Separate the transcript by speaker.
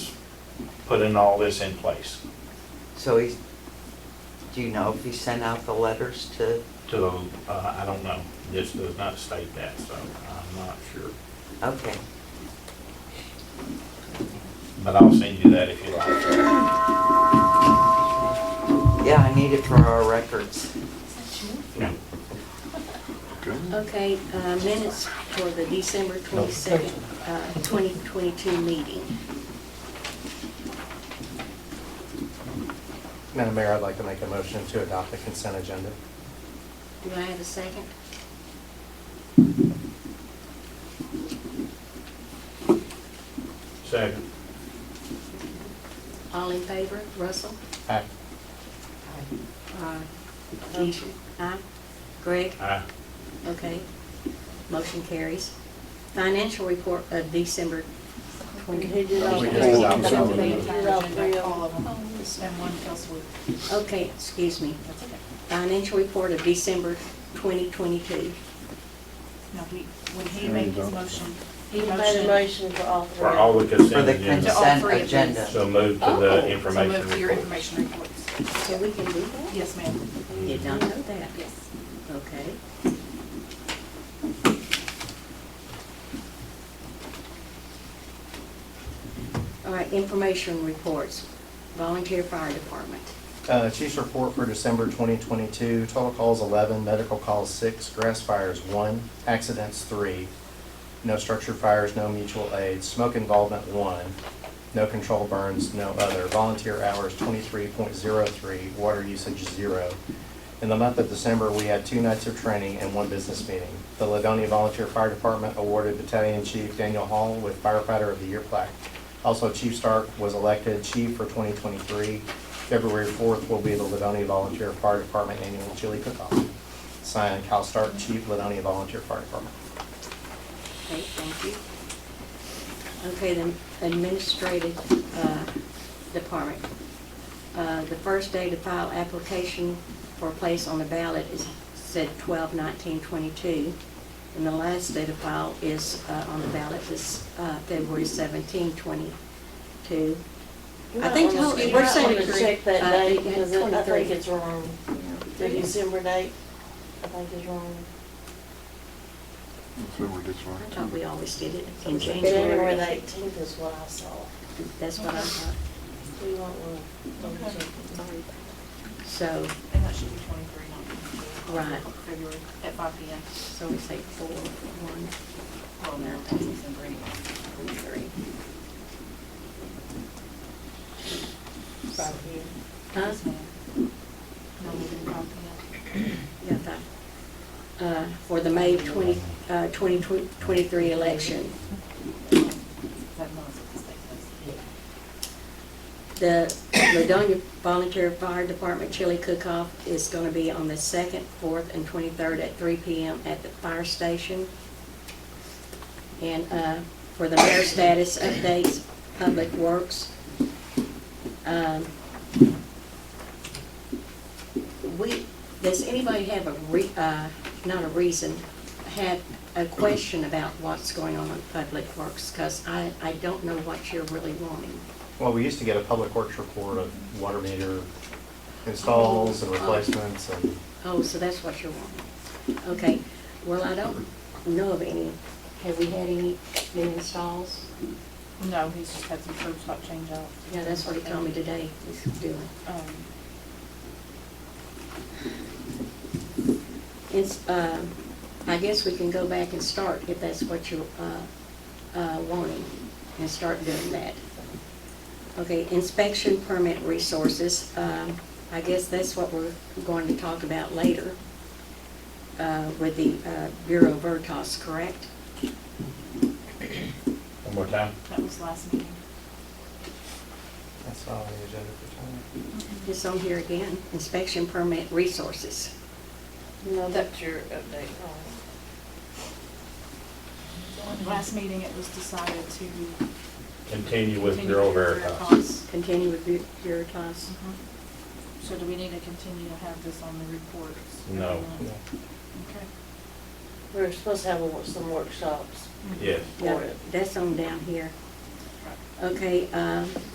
Speaker 1: putting all this in place
Speaker 2: So he's, do you know if he sent out the letters to,
Speaker 1: to, uh, I don't know, this does not state that, so I'm not sure.
Speaker 2: okay.
Speaker 1: But I'll send you that if you like.
Speaker 2: Yeah, I need it for our records.
Speaker 1: No,
Speaker 3: Okay, uh, minutes for the December 22nd, uh, 2022 meeting.
Speaker 4: Madam Mayor, I'd like to make a motion to adopt the consent agenda.
Speaker 3: Do I have a second?
Speaker 1: Second.
Speaker 3: All in favor? Russell?
Speaker 4: Aye.
Speaker 3: Aye. Keisha? Aye. Greg?
Speaker 1: Aye.
Speaker 3: Okay. Motion carries. Financial report of December 20.
Speaker 5: Oh, We
Speaker 4: did it all.
Speaker 5: All of them. And one fell swoop.
Speaker 3: Okay, excuse me. Financial report of December 2022.
Speaker 5: No, he, when he made his motion.
Speaker 6: He made a motion for all three.
Speaker 1: For all the
Speaker 2: For
Speaker 1: consent
Speaker 2: the
Speaker 1: agenda.
Speaker 2: consent
Speaker 5: three of these.
Speaker 2: agenda.
Speaker 1: So move to
Speaker 5: Oh,
Speaker 1: the
Speaker 5: So move to
Speaker 1: information
Speaker 5: your
Speaker 1: report.
Speaker 5: information reports.
Speaker 3: So we can do that?
Speaker 5: Yes, ma'am.
Speaker 3: Did not know that.
Speaker 5: Yes.
Speaker 3: Okay. All right, information reports, volunteer fire department.
Speaker 4: Uh, Chief's report for December 2022, total calls 11, medical calls 6, grass fires 1, accidents 3, no structure fires, no mutual aid, smoke involvement 1, no control burns, no other, volunteer hours 23.03, water usage 0. In the month of December, we had two nights of training and one business meeting. The Ladonia Volunteer Fire Department awarded Battalion Chief Daniel Hall with Firefighter of the Year plaque. Also, Chief Stark was elected chief for 2023. February 4th will be the Ladonia Volunteer Fire Department Annual Chili Cook-Off. Signed, Cal Stark, Chief, Ladonia Volunteer Fire Department.
Speaker 3: Okay, thank you. Okay, the administrative uh, department. Uh, The first day to file application for a place on the ballot is said 12/19/22, and the last day to file is, uh, on the ballot is uh, February 17/22. I think
Speaker 6: You might wanna-
Speaker 3: totally,
Speaker 6: you
Speaker 3: we're
Speaker 6: might
Speaker 3: saying
Speaker 6: wanna Check that
Speaker 3: uh,
Speaker 6: date, because it- I
Speaker 3: 23.
Speaker 6: think it's wrong. The December date, I think is wrong.
Speaker 7: February, that's
Speaker 3: I
Speaker 7: right.
Speaker 3: thought we always did it in
Speaker 6: January
Speaker 3: January.
Speaker 6: the eighteenth is what I saw.
Speaker 3: That's what I thought.
Speaker 6: Do you want one?
Speaker 5: Okay.
Speaker 3: So,
Speaker 5: And that should be twenty-three, not 22.
Speaker 3: Right.
Speaker 5: February at five P M.
Speaker 3: so we say four, one,
Speaker 5: Well, no, that's December anyway.
Speaker 3: twenty-three.
Speaker 6: Five here.
Speaker 3: Huh?
Speaker 5: Yes, ma'am. No, we didn't five P M.
Speaker 3: Yeah, that. Uh, For the May 20, uh, 2023 election,
Speaker 5: That month of the state does.
Speaker 3: the Ladonia Volunteer Fire Department chili cook-off is going to be on the 2nd, 4th, and 23rd at 3 PM at the fire station. And uh, for the mayor status updates, Public Works. um, We, does anybody have a re, uh, not a reason, have a question about what's going on in Public Works? Because I, I don't know what you're really wanting.
Speaker 4: Well, we used to get a public works report of water meter installs and replacements and
Speaker 3: Oh, so that's what you're wanting. Okay, well, I don't know of any, have we had any new installs?
Speaker 5: No, he's just had some curb stop change out.
Speaker 3: Yeah, that's what he told me today he's doing.
Speaker 5: Um,
Speaker 3: It's, uh, I guess we can go back and start if that's what you're uh, uh, wanting, and start doing that. Okay, inspection permit resources, um, I guess that's what we're going to talk about later uh, with the uh, Bureau Veritas, correct?
Speaker 1: One more time.
Speaker 5: That was last meeting.
Speaker 4: that's all on the agenda for tonight.
Speaker 3: It's on here again, inspection permit resources.
Speaker 6: No, that's your update. Oh.
Speaker 5: Last meeting, it was decided to.
Speaker 1: Continue with
Speaker 5: continue
Speaker 1: Bureau
Speaker 5: with
Speaker 1: Veritas.
Speaker 3: Continue with Bu- Veritas.
Speaker 5: Mhm. So do we need to continue to have this on the reports?
Speaker 1: No.
Speaker 5: Mm-hmm.
Speaker 4: Yeah.
Speaker 5: Okay.
Speaker 6: We were supposed to have a- some workshops.
Speaker 1: Yes.
Speaker 3: Yeah, That's on down here. Okay, um,